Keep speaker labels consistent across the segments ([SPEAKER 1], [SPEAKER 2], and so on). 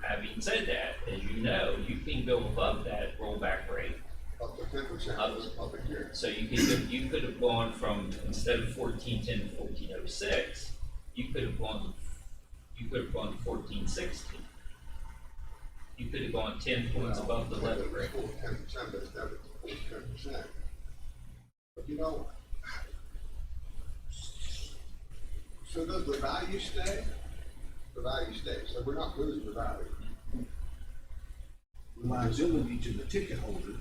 [SPEAKER 1] having said that, as you know, you can go above that rollback rate.
[SPEAKER 2] up to fifty percent of the public hearing.
[SPEAKER 1] So you could, have- you could have gone from, instead of fourteen ten to fourteen oh six, you could have gone, you could have gone to fourteen sixteen. You could have gone ten points above the levy rate.
[SPEAKER 2] Ten percent, but it's never ten percent. But you know. So does the value stay? The value stays, so we're not losing the value.
[SPEAKER 3] reliability to the ticket holder,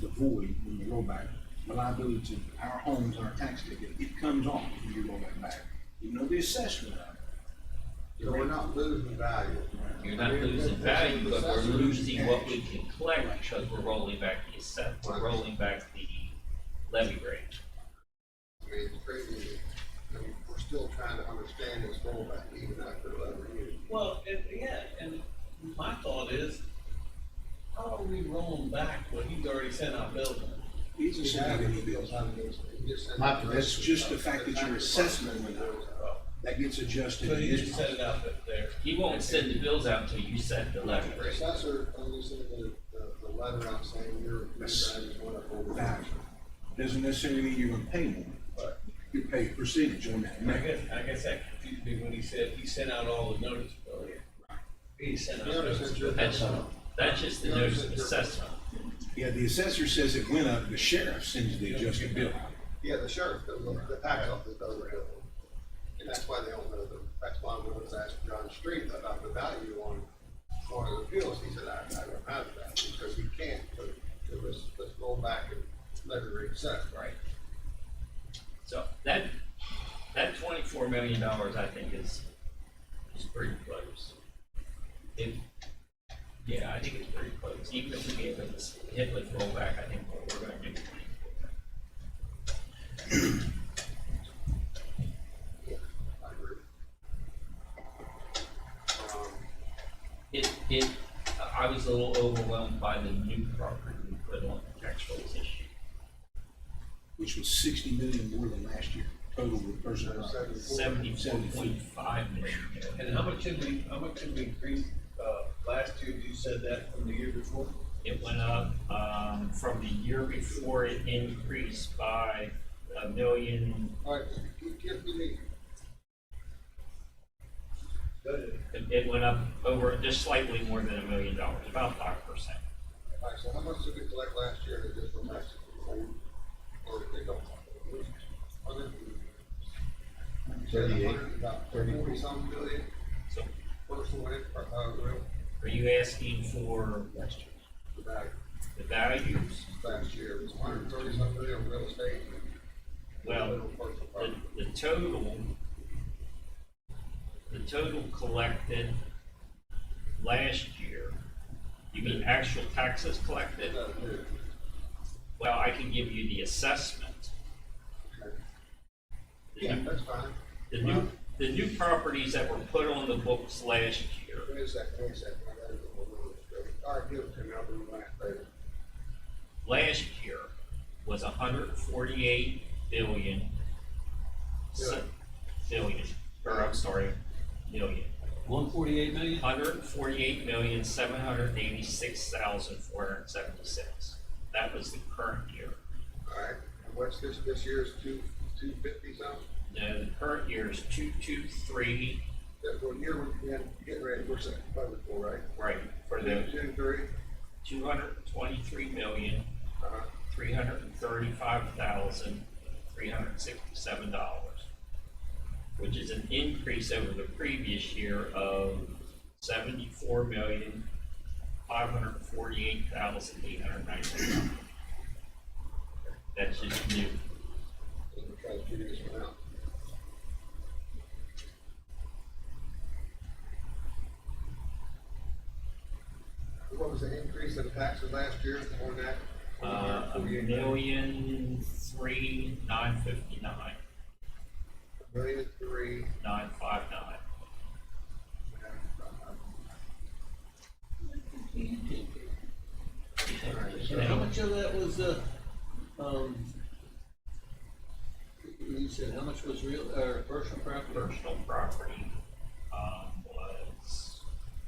[SPEAKER 3] the void when you roll back, reliability to our homes, our tax ticket, it comes off when you roll that back. Even though the assessment, of it,
[SPEAKER 2] So we're not losing value.
[SPEAKER 1] You're not losing value, but we're losing what we can collect because we're rolling back the assessment, we're rolling back the levy rate.
[SPEAKER 2] I mean, it's crazy. I mean, we're still trying to understand this rollback even after eleven years.
[SPEAKER 4] Well, and, yeah, and my thought is, how are we rolling back when he's already sent our bill?
[SPEAKER 3] it's a significant bill. My- that's just the fact that your assessment went up. That gets adjusted.
[SPEAKER 4] So
[SPEAKER 3] in
[SPEAKER 4] you just
[SPEAKER 3] this
[SPEAKER 4] set it
[SPEAKER 3] process.
[SPEAKER 4] up up there.
[SPEAKER 1] He won't send the bills out until you set the levy
[SPEAKER 2] The
[SPEAKER 1] rate.
[SPEAKER 2] Assessor only sent the, the, the letter out saying your, your values went up over.
[SPEAKER 3] Value. Doesn't necessarily mean you're gonna pay more. You pay a percentage on that.
[SPEAKER 4] I guess, I guess that confused me when he said he sent out all the notice bill. He sent out
[SPEAKER 2] You understand
[SPEAKER 4] notice.
[SPEAKER 2] your.
[SPEAKER 1] That's, that's just the notice of assessment.
[SPEAKER 3] Yeah, the assessor says it went up, the sheriff sends the adjusted bill out.
[SPEAKER 2] Yeah, the sheriff, does it. the tax office does it. And that's why they don't know the, that's why when I was asking John Street about the value on, on the appeals, he said, I, I don't have that, because we can't, but, so let's, let's roll back and let it reset.
[SPEAKER 1] Right. So that, that twenty-four million dollars, I think, is, is pretty close. If, yeah, I think it's pretty close, even if we gave it this hit with rollback, I think what we're gonna do is twenty-four million.
[SPEAKER 2] I agree. Um,
[SPEAKER 1] It, it, I was a little overwhelmed by the new property we put on the tax rolls issue.
[SPEAKER 3] which was sixty million more than last year, total with
[SPEAKER 2] and
[SPEAKER 3] personnel.
[SPEAKER 2] so before-
[SPEAKER 1] Seventy-four point five million.
[SPEAKER 4] And how much did we, how much did we increase, uh, last year? You said that from the year before?
[SPEAKER 1] It went up, um, from the year before, it increased by a million
[SPEAKER 2] All right, give- give me
[SPEAKER 4] Good.
[SPEAKER 1] It, it went up over, just slightly more than a million dollars, about five percent.
[SPEAKER 2] the, all right, so how much did we collect last year in additional taxes? Or did they don't?
[SPEAKER 5] Thirty-eight.
[SPEAKER 2] About
[SPEAKER 5] Thirty.
[SPEAKER 2] forty some billion,
[SPEAKER 1] So
[SPEAKER 2] personal, uh, real,
[SPEAKER 1] are you asking for
[SPEAKER 2] the value.
[SPEAKER 1] the values?
[SPEAKER 2] last year, it was hundred and thirty something million on real estate.
[SPEAKER 1] Well, The, the total, the total collected last year, you mean actual taxes collected? Well, I can give you the assessment. The
[SPEAKER 2] Yeah,
[SPEAKER 1] new,
[SPEAKER 2] that's fine.
[SPEAKER 1] the new, the new properties that were put on the books last year,
[SPEAKER 2] Wait a second, wait a second. I gotta go over this. All right, give it to me, I'll do my favor.
[SPEAKER 1] last year was a hundred forty-eight billion. se- Billion, or I'm sorry, million.
[SPEAKER 6] One forty-eight million?
[SPEAKER 1] Hundred forty-eight million, seven hundred eighty-six thousand, four hundred seventy-six. That was the current year.
[SPEAKER 2] All right, and what's this, this year's two, two fifty something?
[SPEAKER 1] Now, the current year is two-two-three,
[SPEAKER 2] That's what year we're getting, getting ready, we're setting budget for, right?
[SPEAKER 1] right, for the
[SPEAKER 2] Two, three,
[SPEAKER 1] two hundred twenty-three million,
[SPEAKER 2] uh-huh,
[SPEAKER 1] three hundred thirty-five thousand, three hundred sixty-seven dollars, which is an increase over the previous year of seventy-four million, five hundred forty-eight thousand, eight hundred ninety-one dollars. That's just new.
[SPEAKER 2] so we're trying to figure this one out. What was the increase in taxes last year on that?
[SPEAKER 1] Uh, a million, three, nine fifty-nine,
[SPEAKER 2] Million three.
[SPEAKER 1] nine five nine.
[SPEAKER 4] And how much of that was, uh, um, you said how much was real, or personal property?
[SPEAKER 1] Personal property um,